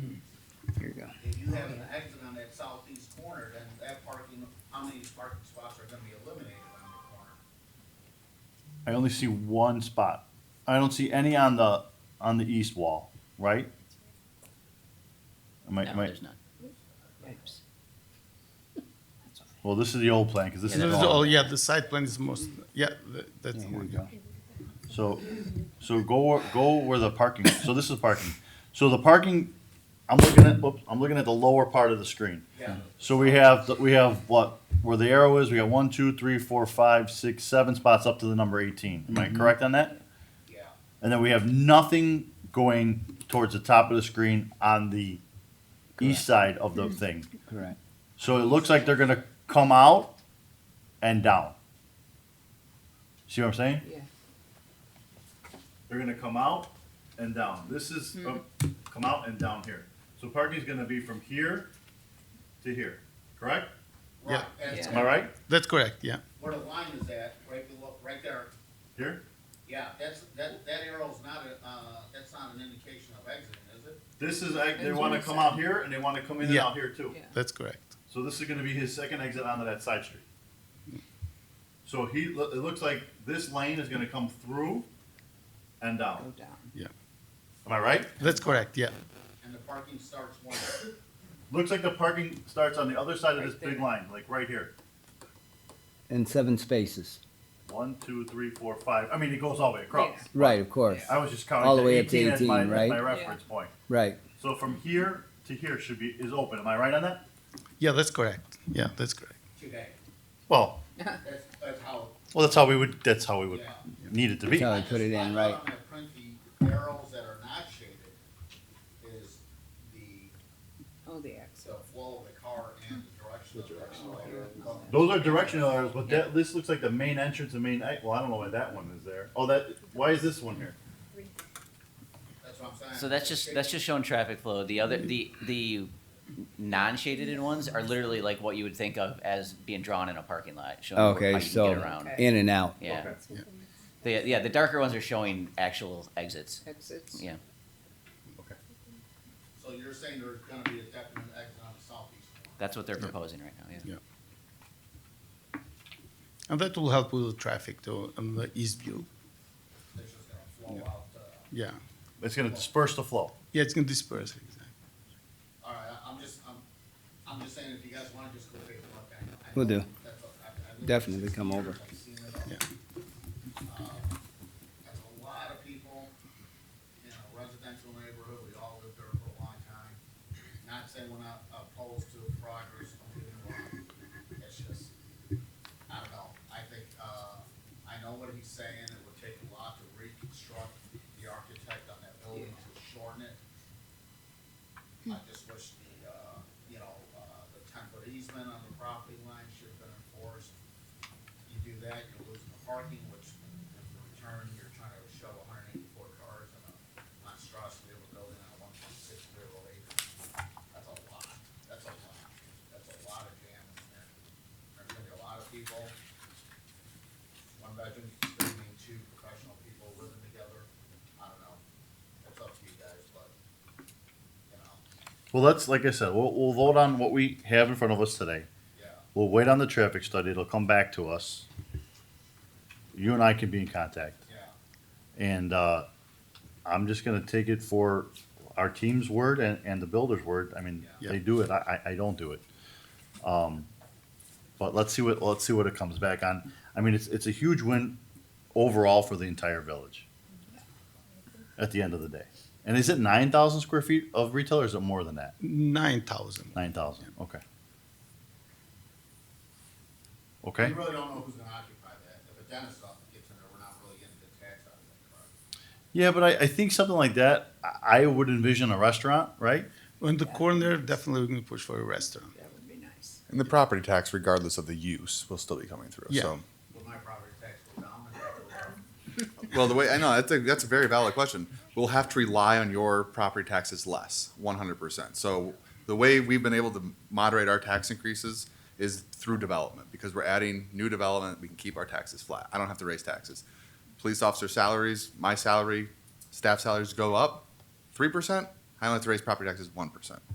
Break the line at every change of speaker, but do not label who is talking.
do have an exit on that southeast corner, then that parking, how many parking spots are gonna be eliminated on the corner?
I only see one spot. I don't see any on the, on the east wall, right? Am I,
No,
am I-
there's none. Oops. That's all right.
well, this is the old plan, because this
Yeah,
is
that
gone.
is
Oh, yeah, the side plan is most, yeah, th- that's. the
Here we
one.
go. So, so go, where- go where the parking, so this is parking. So the parking, I'm looking at, whoops, I'm looking at the lower part of the screen.
Yeah.
So we have, the- we have what, where the arrow is, we got one, two, three, four, five, six, seven spots up to the number eighteen. Am I
Mm-hmm.
correct on that?
Yeah,
And then we have nothing going towards the top of the screen on the east side of
Mm-hmm.
the thing.
Correct.
So it looks like they're gonna come out and down. See what I'm saying?
Yeah.
They're gonna come out and down. This is, oh,
Mm-hmm.
come out and down here. So parking's gonna be from here to here, correct?
right,
Yeah.
that's,
Am I right?
That's correct, yeah.
where the line is at, right below, right there,
Here?
yeah, that's, that, that arrow's not a, uh, that's not an indication of exiting, is it?
This is, like, they wanna come out here and they wanna come in and
Yeah.
out here too.
Yeah.
That's correct.
So this is gonna be his second exit onto that side street. So he, it looks like this lane is gonna come through and
Go
down.
down.
Am I right?
That's correct, yeah.
And the parking starts one,
Looks like the parking starts on the other side of
Right
this big
there.
line, like right here.
And seven spaces.
One, two, three, four, five. I mean, it goes all the way across.
Yeah.
Right, of course.
I was just counting
All
to
the way up to
18, as my,
18,
as my
right?
reference point.
Right.
So from here to here should be is open. Am I right on that?
Yeah, that's correct. Yeah, that's correct.
today,
Well,
that's, that's how,
well, that's how we would. That's how we would
yeah.
need it to
That's how I
just-
put it
I
in,
put
right.
on my print the arrows that are not shaded is the,
Oh, the X.
the flow of the car and the direction of the car.
Those are directional arrows, but that this looks like the main entrance and main. ex- Well, I don't know why that one is there. Oh, that. Why is this one here?
That's what I'm saying.
So that's just that's just showing traffic flow. The other the the non-shaded in ones are literally like what you would think of as being drawn in a parking lot, showing where- how
Okay,
you can get
so
around.
in and out.
Yeah, the, yeah. The darker ones are showing actual exits.
Exits.
Yeah,
So you're saying there's gonna be a definite exit on the southeast corner?
that's what they're proposing right now. Yeah.
Yeah. And that will help with the traffic too, on the east view.
It's just gonna flow out, uh,
Yeah.
It's going to disperse the flow.
Yeah, it's gonna disperse. exactly.
all right, I- I'm just, I'm, I'm just saying if you guys wanna just go take a look. I- I-
Will do.
that's what- I- I lived
Definitely
here
come over.
since I've seen it all.
Yeah.
Um, That's a lot of people in a residential neighborhood. We all lived there for a long time. Not saying we're not opposed to progress, don't get me wrong. It's just, I don't know. I think, uh, I know what he's saying. It would take a lot to reconstruct the architect on that building to shorten it. I just wish the, uh, you know, uh, the temporary easement on the property line should have been enforced. You do that, you're losing the parking, which in return, you're trying to shove hundred and eighty-four cars in a monstrosity of a building on a one point six rear acre. That's a lot, that's a lot, that's a lot of jam in there. There's gonna be a lot of people. One bedroom, could mean two professional people living together, I don't know, it's up to you guys, but, you know,
Well, that's like I said. We'll, we'll vote on what we have in front of us today.
yeah.
We'll wait on the traffic study. It'll come back to us. You and I can be in contact.
Yeah,
And uh, I'm just going to take it for our team's word and, and the builder's word. I mean,
Yeah.
they do it. I, I I don't do it. Um, but let's see what let's see what it comes back on. I mean, it's it's a huge win overall for the entire village. At the end of the day, and is it nine thousand square feet of retail, or is it more than that?
Nine thousand.
Nine thousand. Okay. Okay.
we really don't know who's gonna occupy that. If a dentist office gets in there, we're not really getting the tax out of that, correct?
Yeah, but I, I think something like that, I, I would envision a restaurant, right?
On the corner, definitely we're gonna push for a restaurant.
That would be nice.
And the property tax, regardless of the use, will still be coming through.
Yeah.
So,
Will my property tax go down? Is that what we're-
well, the way I know that's a that's a very valid question. We'll have to rely on your property taxes less, one hundred percent. So the way we've been able to moderate our tax increases is through development because we're adding new development. We can keep our taxes flat. I don't have to raise taxes. Police officer salaries, my salary, staff salaries go up three percent. I only have to raise property taxes one percent.